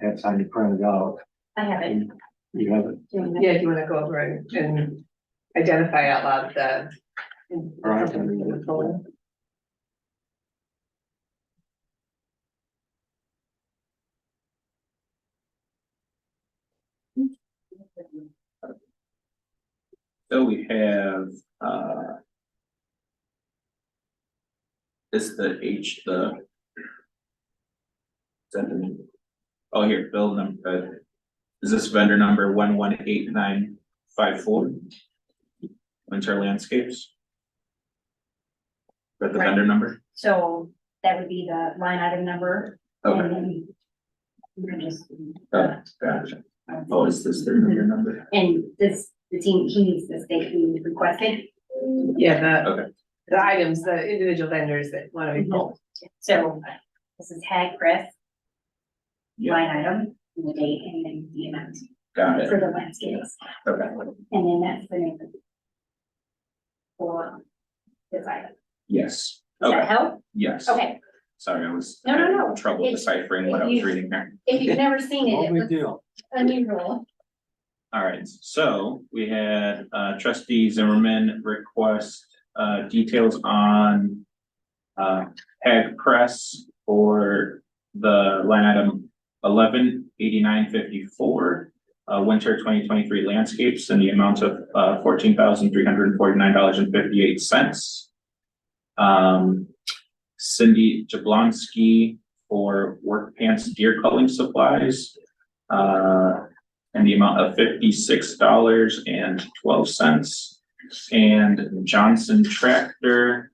had time to print it out. I haven't. You have it, doing Yeah, do you wanna go over and, and identify out loud the. or I can read it. So we have, uh. This the H, the. is that the- Oh, here, bill number, uh, is this vendor number one one eight nine five four? Winter Landscapes? But the vendor number, So that would be the line item number. okay, and then we can just- uh, Oh, gotcha, oh, is this their vendor number? And this, the team, he's the state he requested, Yeah, Okay. the, the items, the individual vendors that wanna be pulled. so this is tag press. Yeah. Line item, and the date, and then the amount Got it, for the landscapes, okay, and then that's the name. of it. For this item, yes, does okay, that help? yes, Okay, sorry, I was. No, no, no. Trouble It's- deciphering what I was you- reading there. if you've never seen No it, it big was deal. unusual. All right, so we had uh, trustee Zimmerman request uh, details on uh, Ag Press for the line item eleven eighty-nine fifty-four, uh, winter twenty twenty-three landscapes and the amount of uh, fourteen thousand three hundred and forty-nine dollars and fifty-eight cents. Um, Cindy Jablonski for work pants deer culling supplies. uh, and the amount of fifty-six dollars and twelve cents. And Johnson Tractor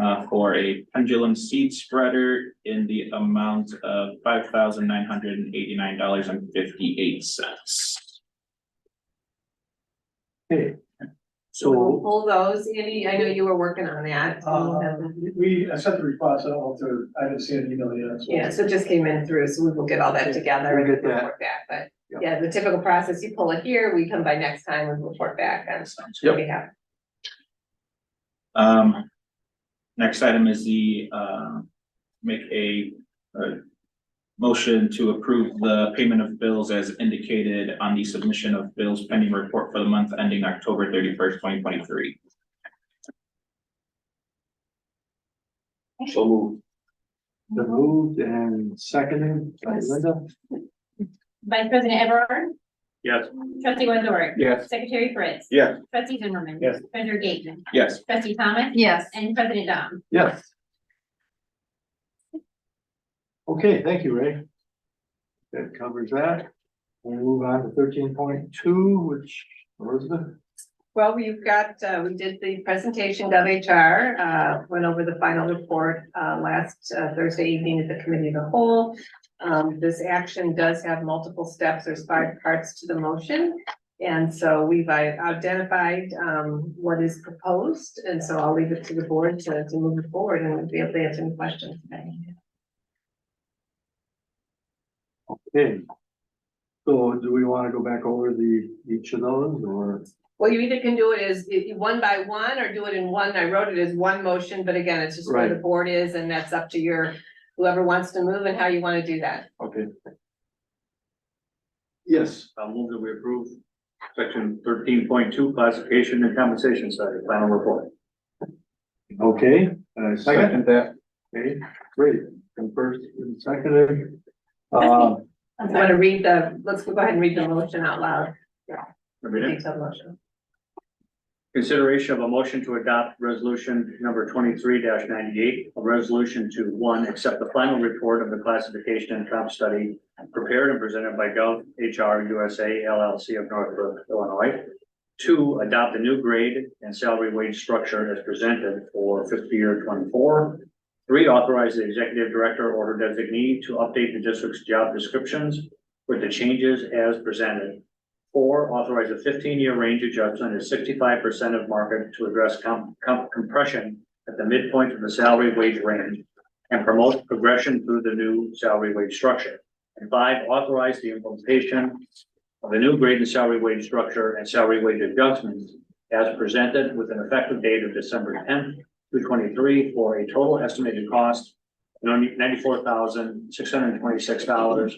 uh, for a pendulum seed spreader in the amount of five thousand nine hundred and eighty-nine dollars and fifty-eight cents. Okay, so Pull those, Andy, I know you were working on that. Oh, uh, Uh-huh. Um, we, I sent the request, I don't know if they're, I didn't see an email yet. so- Yeah, so it just came in through, so we will get all that together We'll and get that. report back, but yeah, the typical process, you pull it here, we come by next time and report back on what we have. Um, next item is the, uh, make a, uh, motion to approve the payment of bills as indicated on the submission of bills pending report for the month ending October thirty-first, twenty twenty-three. so moved. The moved and seconded by Linda. Vice President Everard, Yes. trustee Wendorick, Yes. secretary Fritz. Yes. Trustee Zimmerman. Yes. Treasurer Gaten. Yes. Trustee Thomas. Yes. And President Dom. Yes. Okay, thank you, Ray. That covers that. We'll move on to thirteen point two, which Elizabeth, Well, we've got, uh, we did the presentation of HR, uh, went over the final report, uh, last uh, Thursday evening at the committee of the whole. Um, this action does have multiple steps, there's five parts to the motion. And so we've i- identified, um, what is proposed, and so I'll leave it to the board to, to move it forward and we'll be able to answer any questions. today. okay. So do we want to go back over the, each of those or? Well, you either can do it as i- i- one by one or do it in one. I wrote it as one motion, but again, it's just where the board is and that's up to your, whoever wants to move and how you want to do that. Okay, Yes, I'll move that we approve section thirteen point two classification and compensation study, final report. okay, uh, second, that. okay, great, and first and seconded. Uh, You want to read the, let's go ahead and read the motion out loud, Read it. detailed motion. Consideration of a motion to adopt resolution number twenty-three ninety-eight, a resolution to, one, accept the final report of the classification and comp study prepared and presented by Gov HR USA LLC of Northbrook, Illinois. Two, adopt a new grade and salary wage structure as presented for fiscal year twenty-four. Three, authorize the executive director or her designee to update the district's job descriptions with the changes as presented. Four, authorize a fifteen-year range adjustment at sixty-five percent of market to address com- com- compression at the midpoint of the salary wage range and promote progression through the new salary wage structure. And five, authorize the implementation of the new grade and salary wage structure and salary wage adjustments as presented with an effective date of December tenth, two twenty-three, for a total estimated cost of ninety-four thousand, six hundred and twenty-six dollars